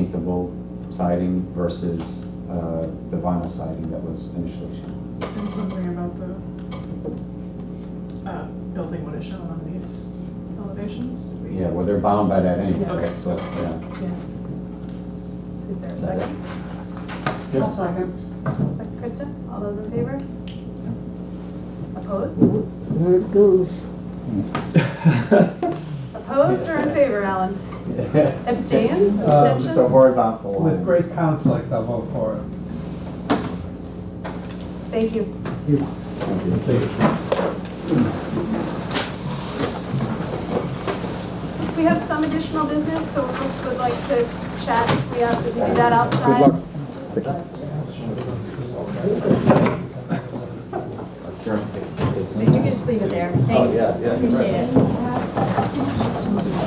paintable siding versus uh, the vinyl siding that was initially shown. And something about the, uh, building what is shown on these elevations? Yeah, well, they're bound by that anyway, Okay. so, yeah. Yeah. Is there a Is that second? I'll second. Second, Krista, all those in favor? Opposed? There it goes. uh, Opposed or in favor, Alan? it? Abstains, Um, Just a abstentions? horizontal line. With great conflict, I'll vote for it. Thank you. Thank you. We have some additional business, so if folks would like to chat, we ask that you do that outside. Good luck. Sure. But you can just leave it there. Thanks. yeah, yeah, you're right. Appreciate it.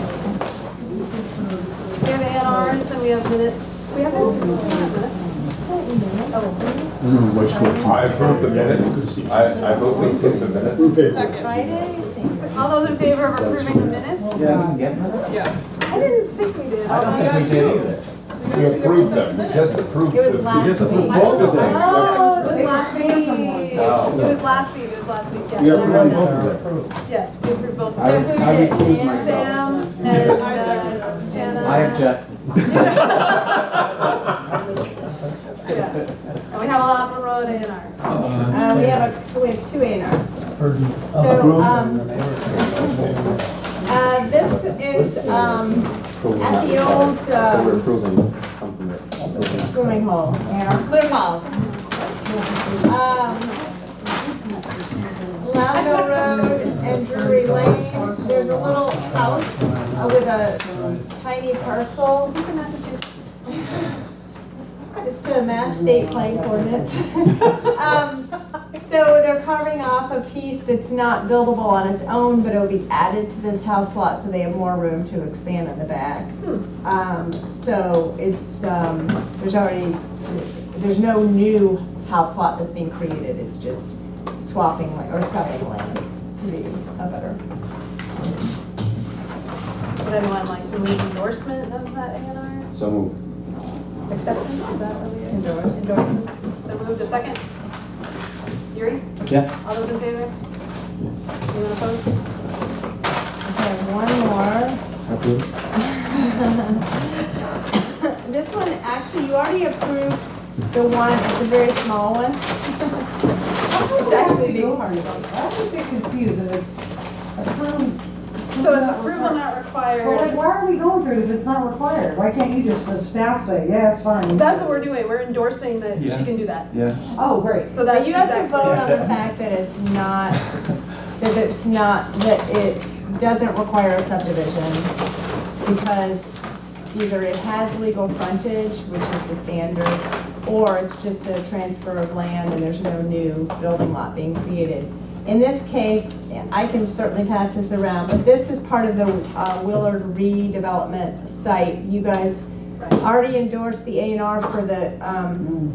We have ANRs and we have minutes. We have minutes? We have minutes. I approve the minutes. I, I vote we approve the minutes. Friday? All those in favor of approving the minutes? Yes, yeah. Yes. I didn't think we did. Oh, I don't think we did either. We approve them. We just approved It was them. last We just approved week. Uh-huh. both of them. Oh, it was last week. It was last week, it was last week, yes. I remember now. Yes, we approved both. I- So who I did it? recuse Sam, myself. Sam and uh, Jana. I object. Yes. And we have a lot of road A and R. Uh, we have a, we have two A and Rs. So, um, Uh, this is, um, at the old, So we're uh, approving something that. swimming hole, and our clear house. Um, Lavender Road and Drury Lane, there's a little house uh, with a tiny parcel. Is this in Massachusetts? It's the Mass State Plank Ordinance. Um, So they're carving off a piece that's not buildable on its own, but it'll be added to this house lot, so they have more room to expand in the back. Um, So it's, um, there's already, there's no new house lot that's being created, it's just swapping la- or selling land to be a better. Would anyone like to move endorsement of that A and So moved. R? Acceptance, is that what it is? Endorsement. So moved a second. Yuri, Yeah. all those in favor? Anyone opposed? Okay, one more. Approved. This one, actually, you already approved the one, it's a very small one. It's actually a big part of it. I was a bit confused, and it's approved. So it's approval not Well, like, required. why are we going through it if it's not required? Why can't you just, as staff say, yeah, it's fine? That's what we're doing, we're endorsing that she Yeah. can do that. Oh, great. So that's But you have to exactly. vote on the fact that it's not, that it's not, that it doesn't require a subdivision because either it has legal frontage, which is the standard, or it's just a transfer of land and there's no new building lot being created. In this case, I can certainly pass this around, but this is part of the uh, Willard redevelopment site. You guys Right. already endorsed the A and R for the, um,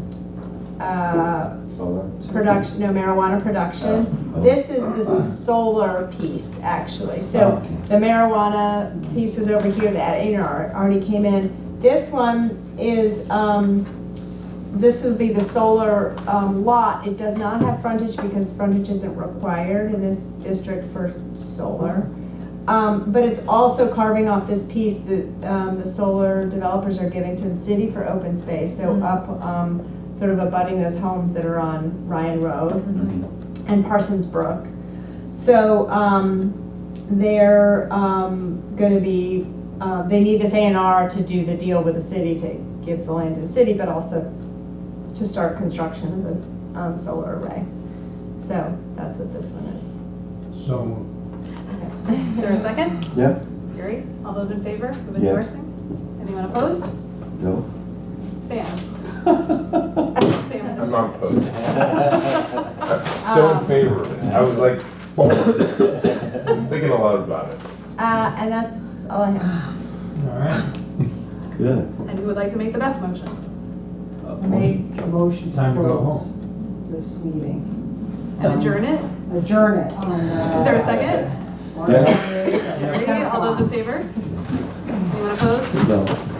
uh, Solar. production, no marijuana production. This is the solar piece, actually. So the marijuana piece was over here, that A&R already came in. This one is, um, this will be the solar um, lot. It does not have frontage because frontage isn't required in this district for solar. Um, But it's also carving off this piece that um, the solar developers are giving to the city for open space. So up, um, sort of abutting those homes that are on Ryan Road and Parsons Brook. So um, they're um, going to be, uh, they need this A and R to do the deal with the city, to give the land to the city, but also to start construction of the um, solar array. So that's what this one is. So, Is there a second? Yeah. Yuri, all those in favor of Yeah. endorsing? Anyone opposed? No. Sam. I'm Sam. not opposed. Mm-hmm. I'm so in favor of it. I was like, I'm thinking a lot about it. Uh, And that's all I have. all right. Good. And who would like to make the best motion? Make a motion to Time to go close this meeting. And adjourn it? Adjourn it Ah, on, uh. Is there a second? March 28th at Yuri, 10 all those in o'clock. favor? Anyone opposed? No.